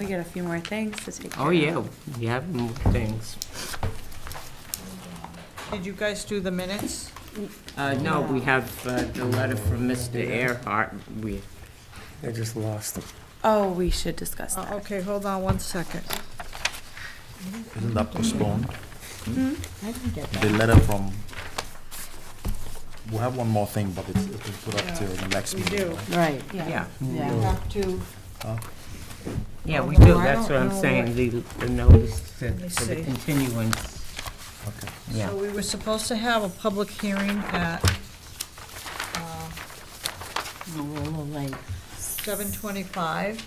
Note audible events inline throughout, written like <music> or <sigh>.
We got a few more things to take care of. Oh, yeah, we have more things. Did you guys do the minutes? Uh, no, we have uh, the letter from Mr. Earhart. We, I just lost them. Oh, we should discuss Uh, that. Okay, hold on one second. Isn't that postponed? I didn't get The letter from, we have one more thing, but it's, it's been put up till the next We meeting. do. right? Right, yeah, yeah. Have to, yeah, we Although do, I that's don't what I'm know saying, the, the notice for me for the see. continuance. Okay. Yeah, so we were supposed to have a public hearing at uh, A little late. seven twenty-five.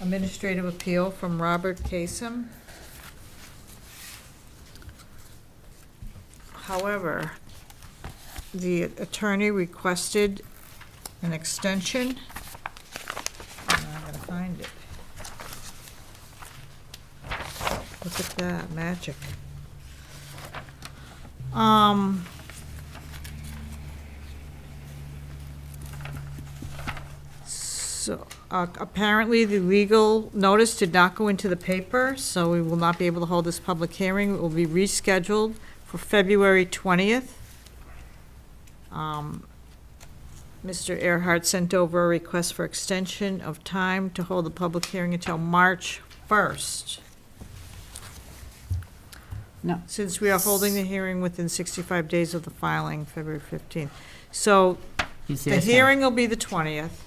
Administrative appeal from Robert Kasem. However, the attorney requested an extension. And I'm gonna find it. Look at that, magic. Um. So, uh, apparently, the legal notice did not go into the paper, so we will not be able to hold this public hearing. It will be rescheduled for February 20th. Um, Mr. Earhart sent over a request for extension of time to hold the public hearing until March 1st. No. Since we are holding the hearing within 65 days of the filing, February 15th. So, He's the asking- hearing will be the 20th.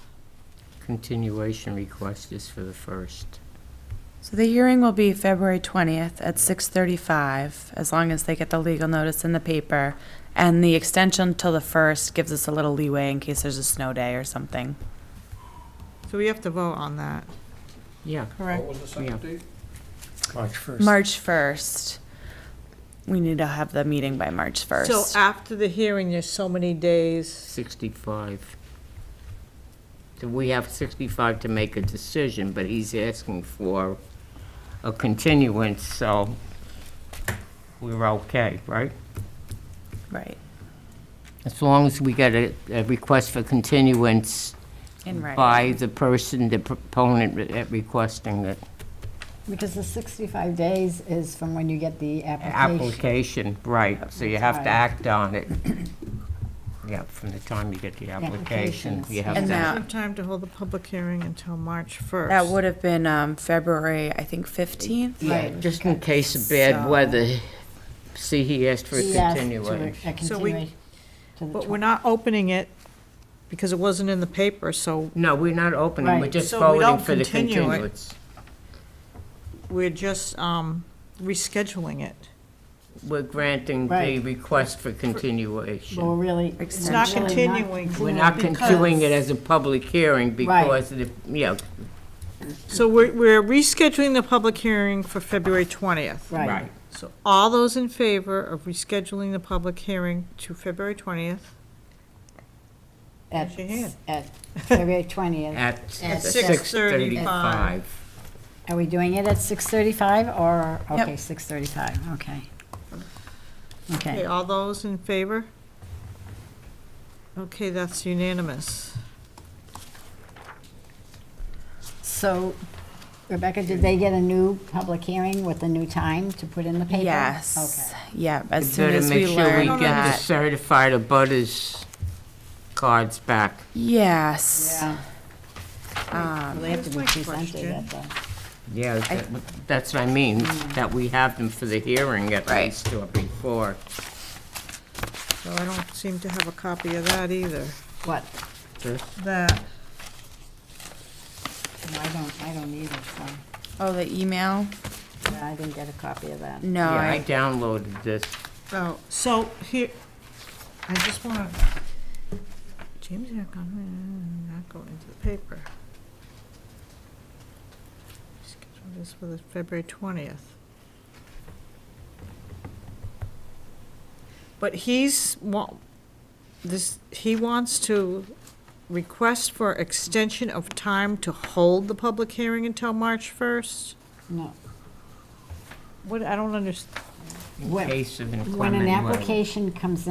Continuation request is for the first. So the hearing will be February 20th at 6:35, as long as they get the legal notice in the paper. And the extension till the 1st gives us a little leeway in case there's a snow day or something. So we have to vote on that. Yeah, Correct. was the Yeah. second date? March 1st. March 1st. We need to have the meeting by March So uh, 1st. after the hearing, there's so many days. 65. So we have 65 to make a decision, but he's asking for a continuance, so we're okay, right? Right, As long as we get a, a request for continuance in writing. by the person, the proponent re- requesting the Because the 65 days is from when you get the application. application, right, so you have to That's act on <coughs> it. Yeah, from the time you get the application, applications, you have And to. that- We have time to hold the public hearing until March 1st. That would have been um, February, I think, 15th. Yeah, Right. just in case of bad So- weather, see, he asked E for a He asked to- continuation. A So we- continuation to the But 20th. we're not opening it because it wasn't in the paper, so No, we're not opening, we're Right. just So we don't voting for the continue it. continuance. we're just um, rescheduling it. We're granting the Right. request for Well, continuation. really. It's not really continuing. We're not continuing it as a public hearing Right. because of the, yeah, So we're we're rescheduling the public hearing for February 20th. Right. right. So all those in favor of rescheduling the public hearing to February 20th? At, Raise your hand. at February 20th. At At 6:35. Are we doing it at 6:35 or, Yep. okay, 6:35, okay. Okay, Okay, all those in favor? Okay, that's unanimous. so Rebecca, did they get a new public hearing with a new time to put in the paper? Yes. Yeah, as soon Better as we make sure we learn get the that. certified abutters cards back. Yes. Um, Okay. Yeah. Well, they have to be Here's my presented at the. Yeah, that- that's what I mean, that we have them for the hearing at Hmm. Right. least or before. So I don't seem to have a copy of that either. What? Just- That, No, I don't, I don't either, so, Oh, the email? yeah, I didn't get a copy of that. No, Yeah, I I downloaded this. oh, so here, I just want to, James, not going, not going into the paper. Schedule this for the February 20th. But he's, wa- this, he wants to request for extension of time to hold the public hearing until March 1st? No. What, I don't understand. In When- case of When inclement an weather. application comes in.